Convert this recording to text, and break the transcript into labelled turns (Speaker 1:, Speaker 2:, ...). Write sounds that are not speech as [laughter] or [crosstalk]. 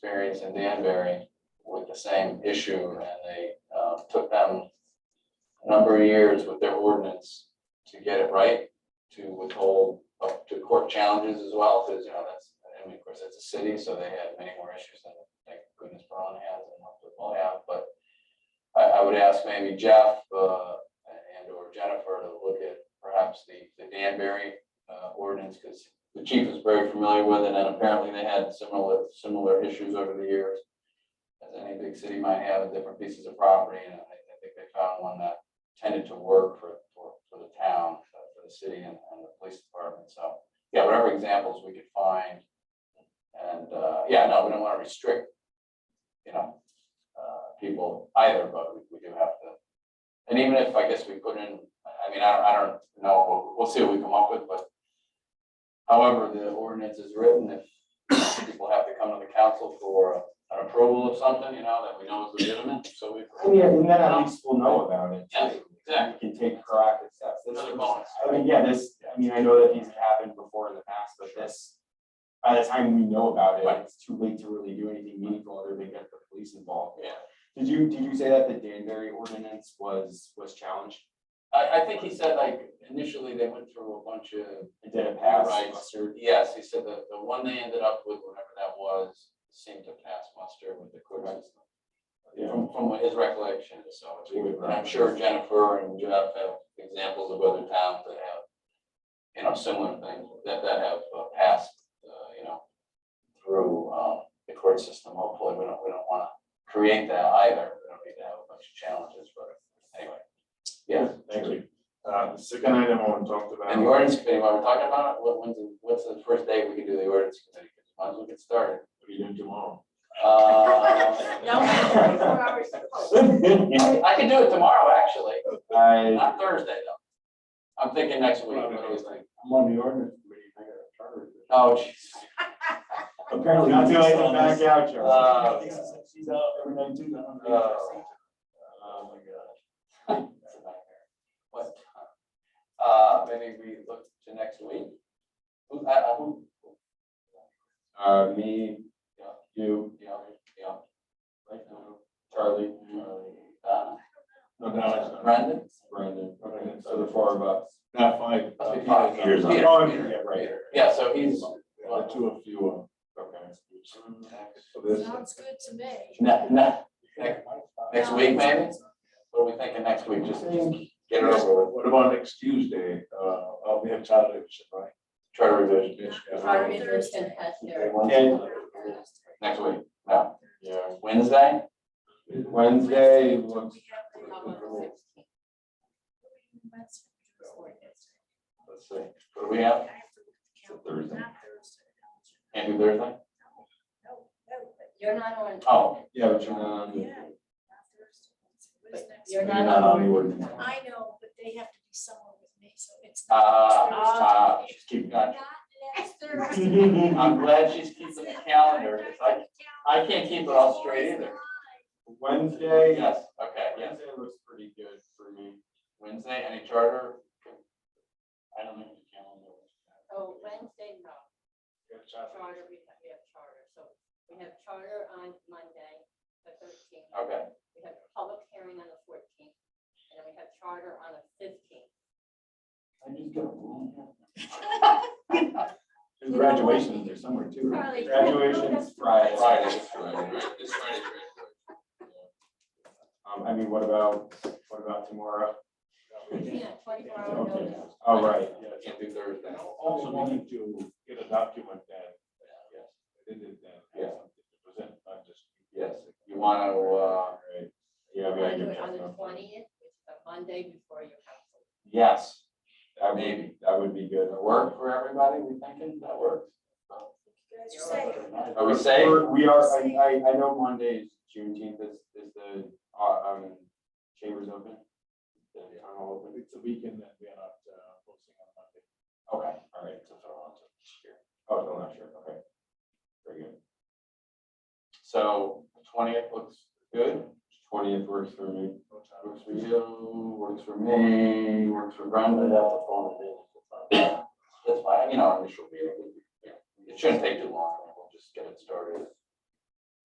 Speaker 1: experience in Danbury with the same issue, and they um, took them a number of years with their ordinance to get it right, to withhold up to court challenges as well, because, you know, that's, I mean, of course, it's a city, so they had many more issues than, thank goodness, Brown has and what football have, but I, I would ask maybe Jeff, uh, and or Jennifer to look at perhaps the, the Danbury, uh, ordinance, because the chief is very familiar with it, and apparently they had similar, similar issues over the years. As any big city might have, with different pieces of property, and I, I think they found one that tended to work for, for, for the town, uh, for the city and, and the police department, so. Yeah, whatever examples we could find. And, uh, yeah, no, we don't want to restrict, you know, uh, people either, but we, we do have to. And even if, I guess we put in, I mean, I, I don't know, we'll, we'll see what we come up with, but however the ordinance is written, if people have to come to the council for an approval of something, you know, that we know is legitimate, so we.
Speaker 2: And yeah, and then at least we'll know about it.
Speaker 1: Yeah,
Speaker 2: too.
Speaker 1: exactly.
Speaker 2: We can take proactive steps. This
Speaker 1: Another
Speaker 2: was-
Speaker 1: bonus.
Speaker 2: I mean, yeah, this, I mean, I know that these have happened before in the past, but this, by the time we know about it,
Speaker 1: Right.
Speaker 2: it's too late to really do anything meaningful other than get the police involved.
Speaker 1: Yeah.
Speaker 2: Did you, did you say that the Danbury ordinance was, was challenged?
Speaker 1: I, I think he said like initially they went through a bunch of,
Speaker 2: It didn't pass
Speaker 1: Right.
Speaker 2: muster?
Speaker 1: yes, he said that the one they ended up with, whatever that was, seemed to pass muster with the court system. From, from what his recollection, is, so it's- and I'm sure Jennifer and Jeff have examples of other towns that have, you know, similar things that, that have uh, passed, uh, you know, through, um, the court system. Hopefully, we don't, we don't want to create that either. We don't need to have a bunch of challenges, but anyway. Yeah.
Speaker 3: Thank you. Uh, the second item I want to talk about.
Speaker 1: And the ordinance committee, while we're talking about it, what, when's, the- what's the first day we can do the ordinance committee? Might as well get started.
Speaker 3: What are you doing tomorrow? [laughs]
Speaker 1: Uh,
Speaker 4: No, twenty-four hours.
Speaker 1: I could do it tomorrow, actually,
Speaker 2: [laughs] I,
Speaker 1: not Thursday, though. I'm thinking next week, what do you think?
Speaker 5: I'm on the ordinance committee, I got a charter.
Speaker 1: Oh, jeez. [laughs]
Speaker 5: Apparently.
Speaker 2: not
Speaker 5: he's
Speaker 2: till I
Speaker 5: on
Speaker 2: come back
Speaker 5: this.
Speaker 2: out, Charlie.
Speaker 1: Uh,
Speaker 5: He's- She's out every night too, I
Speaker 2: uh,
Speaker 5: don't
Speaker 1: Oh.
Speaker 5: know.
Speaker 1: Oh, my God. That's a nightmare. What? Uh, maybe we look to next week? Who, I, I, who,
Speaker 2: Uh, me,
Speaker 1: Yeah.
Speaker 2: you,
Speaker 1: yeah, yeah. Like,
Speaker 2: Charlie,
Speaker 1: uh,
Speaker 3: No, no, it's not.
Speaker 1: Brendan?
Speaker 2: Brandon,
Speaker 3: Okay.
Speaker 2: so the four of us.
Speaker 3: Not five.
Speaker 1: Must be
Speaker 3: uh,
Speaker 1: five.
Speaker 3: Peter.
Speaker 1: Peter,
Speaker 2: Oh, and
Speaker 1: Peter.
Speaker 2: yeah, right.
Speaker 1: Yeah, so he's.
Speaker 3: Yeah, The two of you. uh, Okay. So this,
Speaker 4: Sounds good to me.
Speaker 1: Ne- ne- ne- next week, maybe? What are we thinking next week? Just get it over with.
Speaker 3: what about next Tuesday? Uh, oh, we have charter revision, right?
Speaker 1: Charter revision
Speaker 3: revision.
Speaker 4: Charter
Speaker 3: yeah.
Speaker 4: revision. Thursday.
Speaker 3: Okay,
Speaker 2: Okay.
Speaker 3: Wednesday.
Speaker 1: next week. No,
Speaker 2: Yeah.
Speaker 1: Wednesday?
Speaker 2: Wednesday looks,
Speaker 4: We have to come on the 16th.
Speaker 1: Let's see. What do we have?
Speaker 4: It's a Thursday.
Speaker 1: Can't do Thursday?
Speaker 6: You're not on.
Speaker 1: Oh.
Speaker 2: yeah, but you're not on the-
Speaker 4: Yeah. What is next?
Speaker 6: You're
Speaker 2: you're
Speaker 6: not
Speaker 2: not on
Speaker 6: on.
Speaker 2: the ordinance.
Speaker 4: I know, but they have to be somewhere with me, so it's.
Speaker 1: Uh,
Speaker 4: not
Speaker 1: uh, [laughs]
Speaker 4: Thursday.
Speaker 2: Just keep going.
Speaker 4: Not next Thursday.
Speaker 1: I'm glad she's keeping the calendar. It's like, I can't keep it all straight either.
Speaker 2: [laughs] Wednesday, yes,
Speaker 1: yes, okay, yes.
Speaker 2: Wednesday looks pretty good for me.
Speaker 1: Wednesday, any charter? I don't know the calendar.
Speaker 6: So Wednesday, no,
Speaker 3: We have charter.
Speaker 6: charter, we have, we have charter, so we have charter on Monday, the thirteenth.
Speaker 1: Okay,
Speaker 6: We have public hearing on the fourteenth, and then we have charter on the fifteenth.
Speaker 1: I just got one. Uh,
Speaker 2: There's graduations there somewhere too, right?
Speaker 6: Charlie.
Speaker 2: Graduation's Friday.
Speaker 1: Friday, this Friday, right? This Friday's right.
Speaker 2: Um, I mean, what about, what about tomorrow?
Speaker 6: Yeah, twenty-four hour
Speaker 2: Okay,
Speaker 6: notice.
Speaker 2: all right,
Speaker 3: Yeah, so-
Speaker 1: Can't do Thursday.
Speaker 3: And I also wanted to get a document that,
Speaker 1: Yes.
Speaker 3: they did that.
Speaker 1: Yeah.
Speaker 3: Present, not just.
Speaker 1: Yes, you want to, uh,
Speaker 3: Right.
Speaker 2: yeah,
Speaker 6: We're
Speaker 2: we gotta get
Speaker 6: gonna do it on the
Speaker 2: Jeff up.
Speaker 6: twentieth, which is the Monday before your council.
Speaker 2: Yes, that
Speaker 1: Maybe.
Speaker 2: would, that would be good.
Speaker 1: work for everybody, we thinking that works?
Speaker 4: As you say,
Speaker 1: Are we safe?
Speaker 2: We're- We are, I, I, I know Monday is Juneteenth, is, is the, uh, um, chambers open? The town hall open?
Speaker 3: It's a weekend that we are not, uh, posting on Monday.
Speaker 2: Okay, all right, so throw on to sure. Oh, no, not sure, okay. Very good.
Speaker 1: So twentieth looks good,
Speaker 2: Twentieth works for me.
Speaker 3: No charter.
Speaker 1: works for you, works for me, works for Brenda, that's the phone it is. That's fine, you know, our initial meeting, yeah, it shouldn't take too long, we'll just get it started.